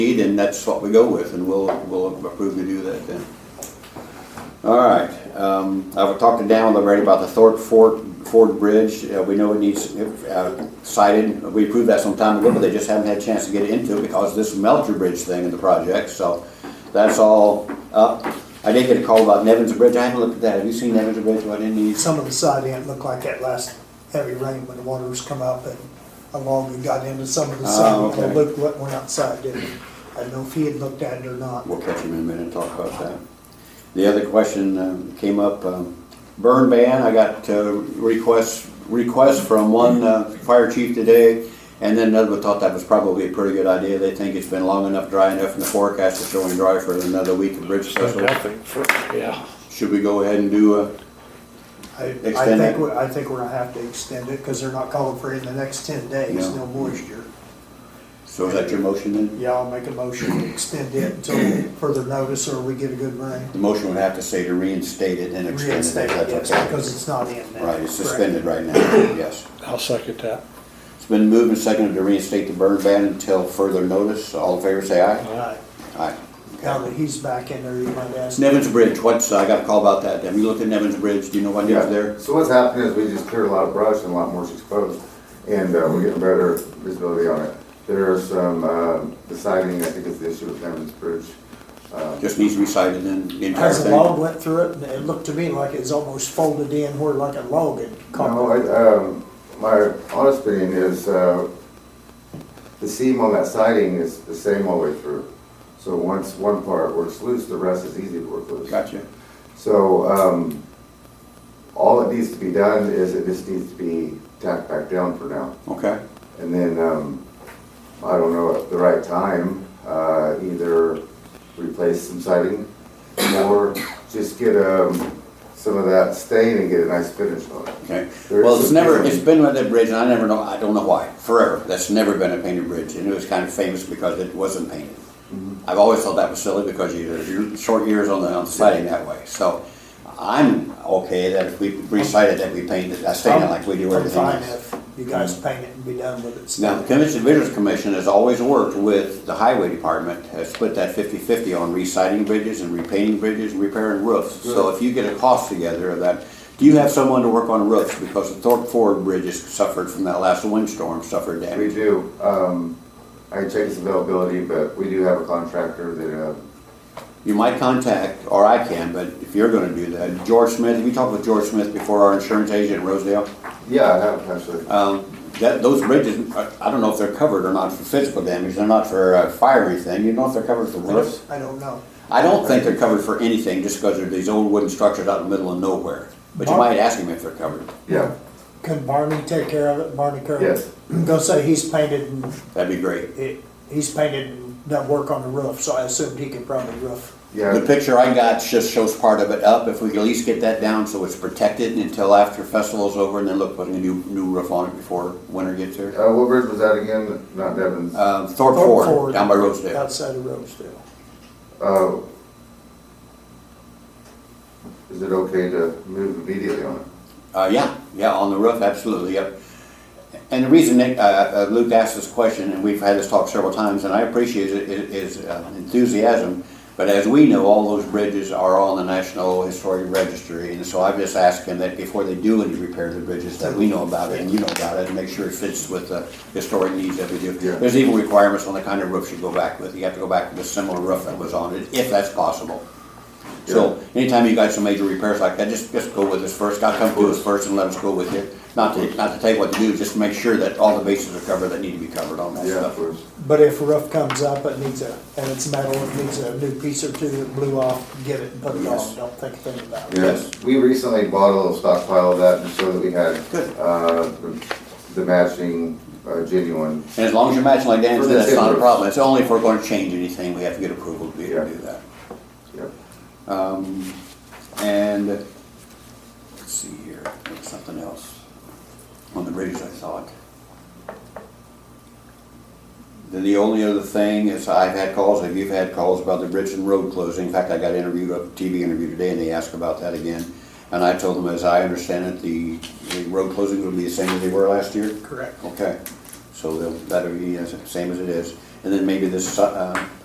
need, and that's what we go with, and we'll, we'll approve to do that then. All right, um, I've talked to Dan already about the Thorpe Ford, Ford Bridge, Uh, we know it needs, uh, sited, we approved that some time ago, but they just haven't had a chance to get into it because of this Melcher Bridge thing in the project, so that's all up. I did get a call about Nevin's Bridge, I haven't looked at that, have you seen Nevin's Bridge, what it needs? Some of the side end looked like that last heavy rain when the waters come up and along and got into some of the Ah, side. okay. It looked what went outside, didn't it? I don't know if he had looked at it or not. We'll catch him in a minute and talk about that. The other question um, came up, um, burn ban, I got uh, requests, requests from one uh, fire chief today, and then another one thought that was probably a pretty good idea. They think it's been long enough, dry enough, and the forecast is showing dry for another week of bridge festival. Nothing for, yeah. Should we go ahead and do uh, a, I, I Extend it. think, we- I think we're gonna have to extend it, cause they're not calling for it in the next ten days, No. no moisture. so is that your motion then? Yeah, I'll make a motion to extend it until further notice or we get a good rain. The motion would have to say to reinstate it and extend it. if Reinstate it, that's yes, okay. because it's not in now. Right, it's Correct. suspended right now, yes. I'll second that. It's been moved and seconded to reinstate the burn ban until further notice. All in favor, say aye. Right. Aye. Now that he's back in there, you might ask. Nevin's Bridge, what's, I got a call about that, have you looked at Nevin's Bridge, do you know what it is there? So what's happening is we just cleared a lot of brush and a lot more is exposed, and uh, we're getting better visibility on it. There are some, um, the siding, I think is the issue with Hammond's Bridge. Um, Just needs to be cited in the entire As a log thing. went through it, and it looked to me like it was almost folded in where like a log had No, I, caught. um, my honest opinion is, uh, the seam on that siding is the same all the way through. So once one part works loose, the rest is easy to work loose. Gotcha. So, um, all that needs to be done is it just needs to be tacked back down for now. Okay, And then, um, I don't know, at the right time, uh, either replace some siding or just get, um, some of that stain and get a nice finish on it. okay. There Well, is it's a- never, it's been with that bridge, and I never know, I don't know why, forever, that's never been a painted bridge, and it was kind of famous because it wasn't painted. Mm-hmm. I've always thought that was silly because you, there's your short years on the, on the siding that way, so I'm okay that if we recited that we painted, I stated like we do I'm everything fine else. if you guys paint it and be done with it. Now, the Commission Visitors Commission has always worked with the Highway Department, has split that 50/50 on reciting bridges and repainting bridges and repairing roofs. So if you get a cost together of that, do you have someone to work on roofs? Because the Thorpe Ford Bridge has suffered from that last windstorm, suffered We damage. do, um, I can check its availability, but we do have a contractor that, uh, You might contact, or I can, but if you're gonna do that, George Smith, have you talked with George Smith before, our insurance agent in Rosedale? yeah, I have actually. Um, That, those bridges, I I don't know if they're covered or not for physical damage, they're not for uh, fire or anything, you know if they're covered for I roofs? don't- I don't know. I don't think they're covered for anything just because they're these old wooden structures out in the middle of nowhere. But you might ask him if they're covered. Yeah, Can Barney take care of it, Barney Kerr? Yes. Go say he's painted and, That'd be great. it- he's painted and done work on the roof, so I assumed he could probably roof. The yeah, picture I got just shows part of it up. If we could at least get that down so it's protected until after festival's over and then look, putting a new, new roof on it before winter gets here. uh, what bridge was that again? Not Devon's. Um, Thorpe Thorpe Ford, Ford. down by Rosedale. Outside of Rosedale. Uh, is it okay to move immediately on it? Uh, yeah, yeah, on the roof, absolutely, yep. And the reason Nick, uh, uh, Luke asked this question, and we've had this talk several times, and I appreciate it, it is uh, enthusiasm. But as we know, all those bridges are on the National Historic Registry, and so I've just asked him that before they do any repair of the bridges, that we know about it and you know about it, and make sure it fits with the historic needs that we do. Yeah. There's even requirements on the kind of roofs you go back with. You have to go back with a similar roof that was on it, if that's possible. So anytime you got some major repairs like that, just, just go with us first, gotta come to us first and let us go with you. Not to, not to tell you what to do, just make sure that all the bases are covered that need to be covered on that Yeah, of stuff. course. But if a roof comes up, it needs a, and it's metal, it needs a new piece or two that blew off, get it and put it Yes. on, don't think a thing about it. Yes, we recently bought a little stockpile of that just so that we had Good. uh, the- the matching uh, genuine. And as long as you're matching like Dan For said, the that's not a timber. problem. It's only if we're gonna change anything, we have to get approval to be able to Yeah. do that. Yep. Um, and, let's see here, there was something else on the bridges, I thought. Then the only other thing is I've had calls, if you've had calls about the bridge and road closing, in fact, I got interviewed, a TV interview today, and they asked about that again. And I told them, as I understand it, the, the road closings will be the same as they were last year? Correct. Okay, so they'll- that'll be the same as it is. And then maybe this, uh,